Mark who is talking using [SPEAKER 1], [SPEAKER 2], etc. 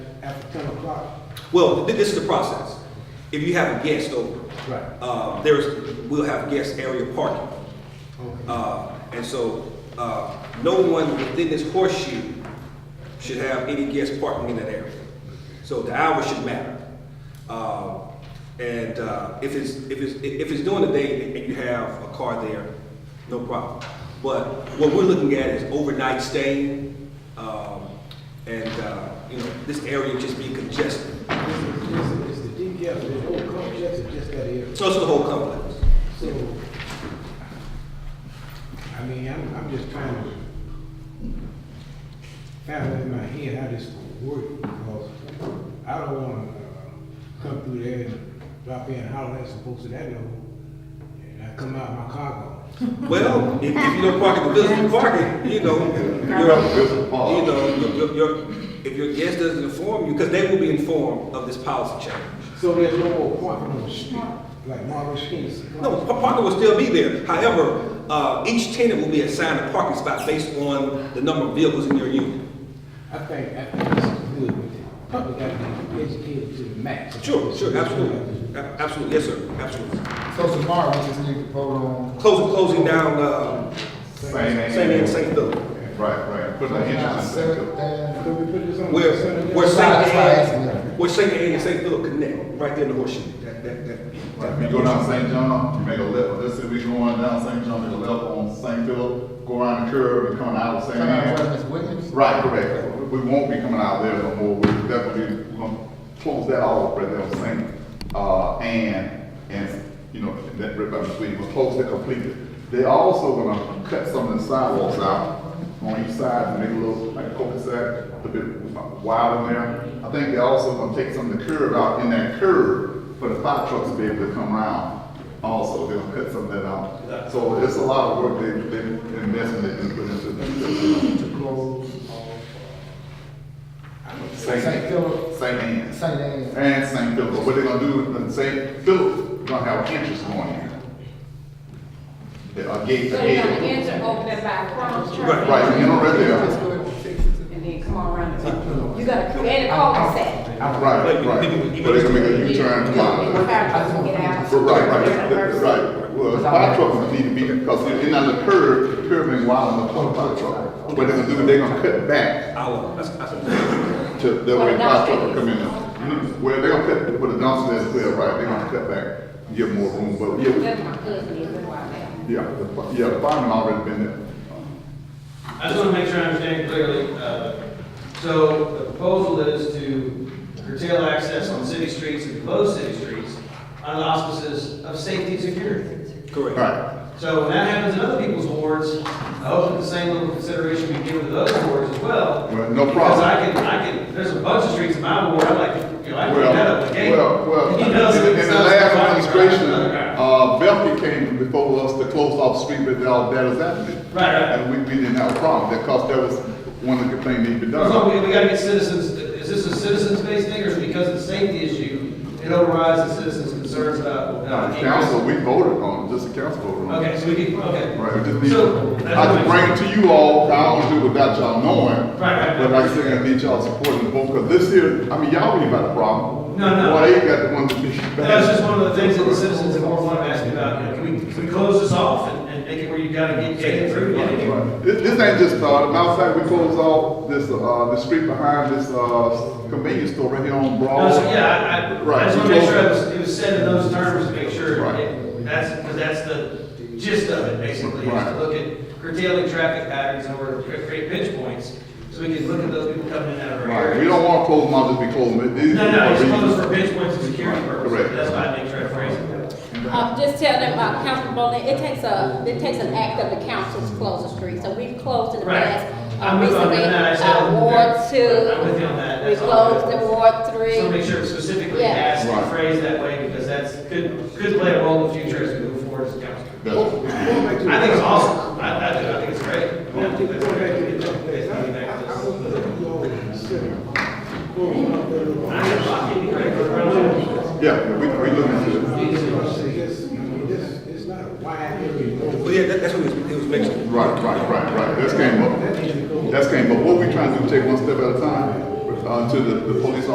[SPEAKER 1] after ten o'clock.
[SPEAKER 2] Well, thi- this is the process. If you have a guest over,
[SPEAKER 1] Right.
[SPEAKER 2] uh, there's, we'll have guest area parking.
[SPEAKER 1] Okay.
[SPEAKER 2] Uh, and so, uh, no one within this horseshoe should have any guest parking in that area. So the hour should matter. Uh, and, uh, if it's, if it's, if it's during the day and you have a car there, no problem. But what we're looking at is overnight stay, um, and, uh, you know, this area just being congested.
[SPEAKER 1] Is, is, is the DEF, the whole complex or just that area?
[SPEAKER 2] So it's the whole complex.
[SPEAKER 1] So, I mean, I'm, I'm just trying to find out in my head how this will work, because I don't wanna, uh, come through there and drop in, holler at some folks that I know, and I come out my car gone.
[SPEAKER 2] Well, if, if you don't park at the visitor parking, you know,
[SPEAKER 3] Visitor
[SPEAKER 2] your,
[SPEAKER 3] park.
[SPEAKER 2] you know, your, your, your, if your guest doesn't inform you, because they will be informed of this policy change.
[SPEAKER 1] So there's no more parking on the street, like Marvin Street.
[SPEAKER 2] No, pa- parking will still be there. However, uh, each tenant will be assigned a parking spot based on the number of vehicles in your unit.
[SPEAKER 1] I think, I think this is good, but the public gotta be educated to the max.
[SPEAKER 2] Sure, sure, absolutely, A- absolutely, yes, sir, absolutely.
[SPEAKER 4] So tomorrow, we just need to vote on.
[SPEAKER 2] Closing, closing down, uh, St. Anne, St. Philip.
[SPEAKER 3] Right, right. Put
[SPEAKER 4] Put
[SPEAKER 3] an entrance in
[SPEAKER 4] Seventh
[SPEAKER 3] there.
[SPEAKER 4] and,
[SPEAKER 1] Could we put this on?
[SPEAKER 2] Where,
[SPEAKER 1] Sunday?
[SPEAKER 2] where St.
[SPEAKER 4] That's why I asked
[SPEAKER 2] Anne,
[SPEAKER 4] him.
[SPEAKER 2] where St. Anne and St. Philip connect, right there in the horseshoe. That, that, that.
[SPEAKER 3] Right, If you go down St. John, you make a left, let's say we going down St. John, make a left on St. Philip, go around the curve and come out of St.
[SPEAKER 4] coming out
[SPEAKER 3] Anne.
[SPEAKER 4] of Miss Williams?
[SPEAKER 3] Right, correct. We we won't be coming out there no more. We're definitely, we're gonna close that off right there on St. Uh, Anne and, you know, that, right by the street, we'll close that completely. They also gonna cut some of the sidewalks out on each side, and make a little, like cul-de-sac, a bit wider there. I think they also gonna take some of the curb out in that curb for the fire trucks to be able to come around. Also, they'll cut some of that out. So it's a lot of work they, they investing in, putting into this.
[SPEAKER 4] To close off
[SPEAKER 3] St.
[SPEAKER 4] Saint Philip.
[SPEAKER 3] St. Anne's.
[SPEAKER 4] St. Anne's.
[SPEAKER 3] And St. Philip. What they're gonna do, in St. Philip, gonna have entrance going in. A gate,
[SPEAKER 5] So
[SPEAKER 3] a
[SPEAKER 5] you're gonna
[SPEAKER 3] gate.
[SPEAKER 5] enter over there by Crum's Church?
[SPEAKER 2] Right,
[SPEAKER 3] Right, you know, right there.
[SPEAKER 5] And then come on around the top. You gotta create a cul-de-sac.
[SPEAKER 3] Right, right. But they're gonna make a U-turn and come out.
[SPEAKER 5] Fire trucks will get out.
[SPEAKER 3] But Right, right, that- that's right. Well, fire trucks need to be, because they're in on the curb, the curb ain't wide enough for a fire truck. What they're gonna do, they're gonna cut back
[SPEAKER 2] Hour, that's, that's.
[SPEAKER 3] to, that
[SPEAKER 5] Where
[SPEAKER 3] way
[SPEAKER 5] the
[SPEAKER 3] fire truck
[SPEAKER 5] dumpster
[SPEAKER 3] can come in. Well, they're gonna cut, with the dumpster as well, right, they're gonna cut back, give more room, but yeah, we-
[SPEAKER 5] That's my cousin, he's a wild man.
[SPEAKER 3] Yeah, the, fi- yeah, the fireman already been there.
[SPEAKER 6] I just want to make sure I understand clearly. uh, So the proposal is to curtail access on city streets and close city streets under the auspices of safety and security.
[SPEAKER 3] All
[SPEAKER 2] Correct.
[SPEAKER 3] right,
[SPEAKER 6] So when that happens in other people's wards, I hope that the same little consideration be given to those wards as well.
[SPEAKER 3] Well, no
[SPEAKER 6] Because
[SPEAKER 3] problem.
[SPEAKER 6] I can, I can, there's a bunch of streets in my ward, I like, you know, I
[SPEAKER 3] well,
[SPEAKER 6] can clean that up again.
[SPEAKER 3] well, well, in
[SPEAKER 6] You know, so
[SPEAKER 3] the
[SPEAKER 6] it's
[SPEAKER 3] in the
[SPEAKER 6] not-
[SPEAKER 3] last administration, uh, Belkey came before us to close off street with all that is happening.
[SPEAKER 6] Right, right.
[SPEAKER 3] And we, we didn't have a problem, because that was one of the things that we done.
[SPEAKER 6] So we, we gotta get citizens, is this a citizens-based thing, or is it because of the safety issue, it overrides the citizens' concerns about?
[SPEAKER 3] Now, the council, we voted on, it, just the council voted on. it.
[SPEAKER 6] Okay, so we can, okay.
[SPEAKER 3] Right, we just need,
[SPEAKER 6] So,
[SPEAKER 3] I can bring it to you all, I don't do it without y'all knowing.
[SPEAKER 6] Right, right, right.
[SPEAKER 3] But like I said, I need y'all supporting the vote, because this here, I mean, y'all ain't got a problem.
[SPEAKER 6] No, no.
[SPEAKER 3] Boy, they got the one to be.
[SPEAKER 6] That's just one of the things that the citizens in Ward One have asked me about, you know, can we, can we close this off and, and make it where you gotta get, get it through? get it through?
[SPEAKER 3] This, this ain't just started, matter of fact, we closed off this, uh, the street behind this, uh, convenience store right here on
[SPEAKER 6] No,
[SPEAKER 3] Broad.
[SPEAKER 6] so, yeah, I, I, I
[SPEAKER 3] Right,
[SPEAKER 6] just wanna
[SPEAKER 3] we
[SPEAKER 6] make sure
[SPEAKER 3] closed-
[SPEAKER 6] it was, it was said in those terms to make sure,
[SPEAKER 3] Right.
[SPEAKER 6] it- that's, because that's the gist of it, basically, is to
[SPEAKER 3] Right.
[SPEAKER 6] look at curtailing traffic patterns in order to create pinch points, so we can look at those people coming in and out of our
[SPEAKER 3] Right, we
[SPEAKER 6] areas.
[SPEAKER 3] don't wanna close them out, just be closing it. These
[SPEAKER 6] No, no, it's
[SPEAKER 3] are reasons.
[SPEAKER 6] closed for pinch points and security purposes,
[SPEAKER 3] Correct.
[SPEAKER 6] that's why I make sure I phrase it.
[SPEAKER 5] Um, just tell them, uh, Councilman Bowling, it takes a, it takes an act of the council to close a street, so we've closed in the
[SPEAKER 6] Right.
[SPEAKER 5] past. uh,
[SPEAKER 6] I'm with you on
[SPEAKER 5] recently,
[SPEAKER 6] that. I said-
[SPEAKER 5] uh, Ward two.
[SPEAKER 6] I'm with you on that.
[SPEAKER 5] We
[SPEAKER 6] That's all good.
[SPEAKER 5] closed in Ward three.
[SPEAKER 6] So make sure it's specifically
[SPEAKER 5] Yeah.
[SPEAKER 6] asked and
[SPEAKER 3] Right.
[SPEAKER 6] phrased that way, because that's, could, could play a role in the future as we move forward as a council.
[SPEAKER 3] That's-
[SPEAKER 6] I think it's awesome, I, I do, I think it's great.
[SPEAKER 1] Go
[SPEAKER 6] I
[SPEAKER 1] back to
[SPEAKER 6] think
[SPEAKER 1] the
[SPEAKER 6] that's great. It's
[SPEAKER 1] complex. I,
[SPEAKER 6] nothing back
[SPEAKER 1] I,
[SPEAKER 6] to
[SPEAKER 1] I
[SPEAKER 6] this.
[SPEAKER 1] want to let you all consider going up there.
[SPEAKER 6] I think it's fucking great. We're-
[SPEAKER 3] Yeah, we, we looking into it.
[SPEAKER 1] I say this, I mean, this, it's not a wide area.
[SPEAKER 2] Well, yeah, that, that's what it was, it was mentioned.
[SPEAKER 3] Right, right, right, right, that's came up. That's came, but what we trying to do, take one step at a time, uh, to the, the police